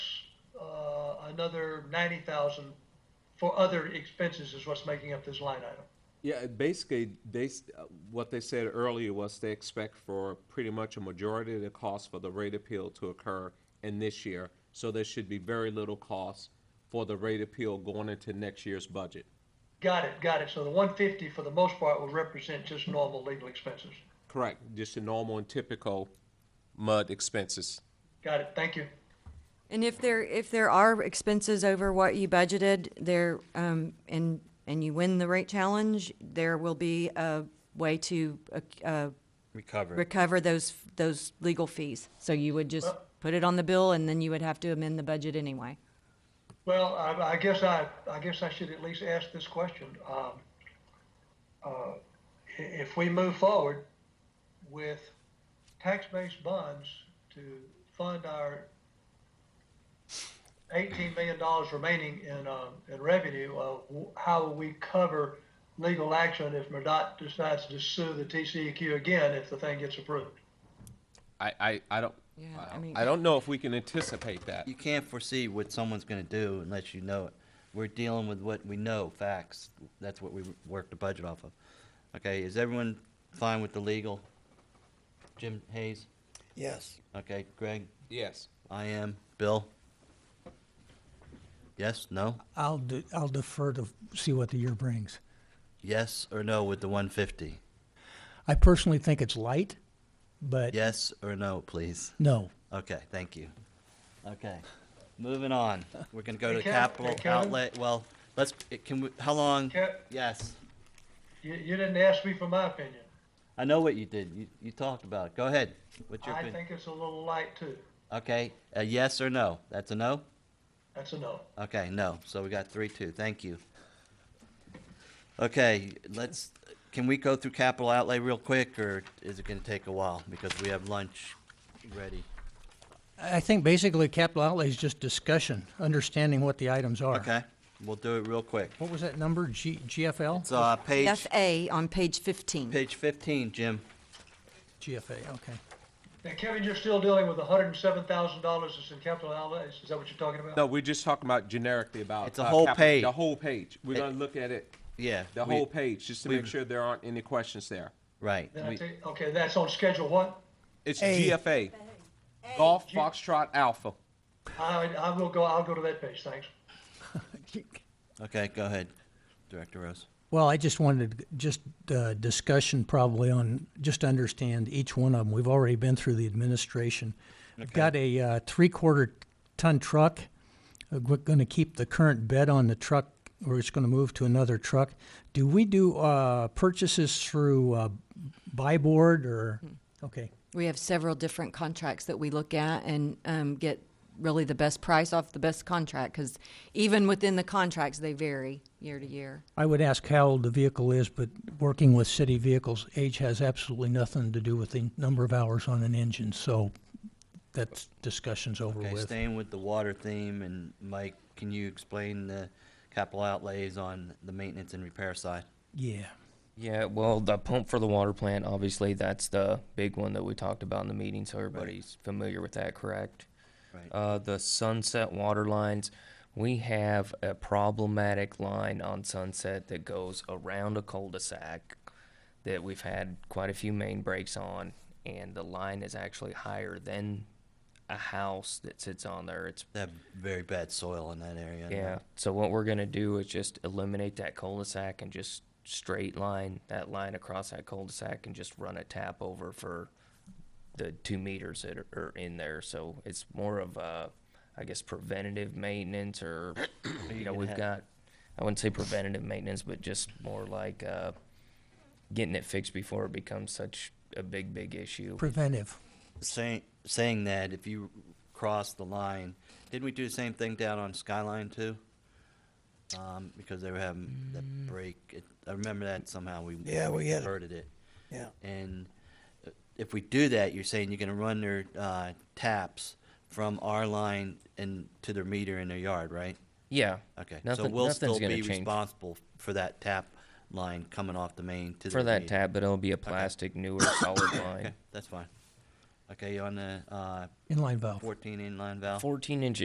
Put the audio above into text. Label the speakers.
Speaker 1: uh, another ninety thousand for other expenses is what's making up this line item.
Speaker 2: Yeah, basically, they, s- uh, what they said earlier was they expect for pretty much a majority of the cost for the rate appeal to occur in this year. So there should be very little cost for the rate appeal going into next year's budget.
Speaker 1: Got it, got it. So the one fifty for the most part will represent just normal legal expenses.
Speaker 2: Correct, just the normal and typical MUD expenses.
Speaker 1: Got it, thank you.
Speaker 3: And if there, if there are expenses over what you budgeted, there, um, and, and you win the rate challenge, there will be a way to, uh, uh,
Speaker 4: Recover.
Speaker 3: recover those, those legal fees. So you would just put it on the bill and then you would have to amend the budget anyway.
Speaker 1: Well, I, I guess I, I guess I should at least ask this question. Um, uh, i- if we move forward with tax-based bonds to fund our eighteen million dollars remaining in, uh, in revenue, uh, w- how will we cover legal action if MRDOT decides to sue the TCEQ again if the thing gets approved?
Speaker 2: I, I, I don't,
Speaker 3: Yeah,
Speaker 2: I
Speaker 3: I
Speaker 2: don't-
Speaker 3: mean-
Speaker 2: I don't know if we can anticipate that.
Speaker 4: You can't foresee what someone's gonna do unless you know it. We're dealing with what we know, facts. That's what we work the budget off of. Okay, is everyone fine with the legal? Jim Hayes?
Speaker 5: Yes.
Speaker 4: Okay, Greg?
Speaker 2: Yes.
Speaker 4: I am. Bill? Yes, no?
Speaker 5: I'll, de- I'll defer to see what the year brings.
Speaker 4: Yes or no with the one fifty?
Speaker 5: I personally think it's light, but
Speaker 4: Yes or no, please?
Speaker 5: no.
Speaker 4: Okay, thank you. Okay, moving on. We're gonna go to
Speaker 1: Hey, Kev-
Speaker 4: capital
Speaker 1: hey, Kevin?
Speaker 4: outlet. Well, let's, can we, how long?
Speaker 1: Kev-
Speaker 4: Yes.
Speaker 1: You, you didn't ask me for my opinion.
Speaker 4: I know what you did. You, you talked about it. Go ahead. What's your
Speaker 1: I
Speaker 4: opinion?
Speaker 1: think it's a little light too.
Speaker 4: Okay, a yes or no? That's a no?
Speaker 1: That's a no.
Speaker 4: Okay, no. So we got three, two. Thank you. Okay, let's, can we go through capital outlay real quick or is it gonna take a while? Because we have lunch ready.
Speaker 5: I I think basically capital outlay is just discussion, understanding what the items are.
Speaker 4: Okay, we'll do it real quick.
Speaker 5: What was that number? G, GFL?
Speaker 4: So, uh, page,
Speaker 3: That's A on page fifteen.
Speaker 4: page fifteen, Jim.
Speaker 5: GFA, okay.
Speaker 1: Now, Kevin, you're still dealing with hundred and seven thousand dollars that's in capital outlays, is that what you're talking about?
Speaker 2: No, we're just talking about generically about.
Speaker 4: It's a
Speaker 2: uh,
Speaker 4: whole
Speaker 2: capital-
Speaker 4: page.
Speaker 2: The whole page. We're
Speaker 4: It-
Speaker 2: gonna look at it,
Speaker 4: Yeah.
Speaker 2: the
Speaker 4: we-
Speaker 2: whole page, just to make
Speaker 4: we've-
Speaker 2: sure there aren't any questions there.
Speaker 4: Right.
Speaker 1: Then I
Speaker 4: we-
Speaker 1: take, okay, that's on schedule what?
Speaker 2: It's
Speaker 5: A.
Speaker 2: GFA. Golf Foxtrot Alpha.
Speaker 1: I, I will go, I'll go to that page, thanks.
Speaker 4: Okay, go ahead, Director Rose.
Speaker 5: Well, I just wanted to- just uh, discussion probably on just to understand each one of them. We've already been through the administration. I've got a uh, three-quarter ton truck. Uh, We're going to keep the current bed on the truck, or it's going to move to another truck. Do we do uh, purchases through uh, buy board or okay?
Speaker 3: We have several different contracts that we look at and um, get really the best price off the best contract because even within the contracts, they vary year to year.
Speaker 5: I would ask how old the vehicle is, but working with city vehicles, age has absolutely nothing to do with the number of hours on an engine. So that discussion's over
Speaker 4: Okay,
Speaker 5: with.
Speaker 4: staying with the water theme, and Mike, can you explain the capital outlays on the maintenance and repair side?
Speaker 5: Yeah.
Speaker 6: Yeah, well, the pump for the water plant, obviously, that's the big one that we talked about in the meeting, so everybody's familiar with that, correct?
Speaker 4: Right.
Speaker 6: Uh, the sunset water lines, we have a problematic line on Sunset that goes around a cul-de-sac that we've had quite a few main breaks on, and the line is actually higher than a house that sits on there. It's
Speaker 4: They have very bad soil in that area. and
Speaker 6: yeah. So what we're gonna do is just eliminate that cul-de-sac and just straight line that line across that cul-de-sac and just run a tap over for the two meters that are, are in there. So it's more of a, I guess, preventative maintenance or you know
Speaker 4: can
Speaker 6: we've
Speaker 4: have-
Speaker 6: got, I wouldn't say preventative maintenance, but just more like uh, getting it fixed before it becomes such a big big issue.
Speaker 5: Preventive.
Speaker 4: Saying, saying that, if you cross the line, didn't we do the same thing down on Skyline too? Um, because they were having that
Speaker 6: Mm.
Speaker 4: break, it, I remember that somehow we.
Speaker 7: Yeah, we had it.
Speaker 4: Averted it.
Speaker 7: Yeah.
Speaker 4: And uh, if we do that, you're saying you're gonna run their, uh, taps from our line and to their meter in their yard, right?
Speaker 6: Yeah.
Speaker 4: Okay, so
Speaker 6: Nothing-
Speaker 4: we'll
Speaker 6: nothing's
Speaker 4: still
Speaker 6: gonna
Speaker 4: be
Speaker 6: change.
Speaker 4: responsible for that tap line coming off the main to the.
Speaker 6: For that tap, but it'll be a plastic newer solid line.
Speaker 4: Okay, that's fine. Okay, on the, uh,
Speaker 5: Inline valve.
Speaker 4: fourteen inline valve?
Speaker 6: 14 inch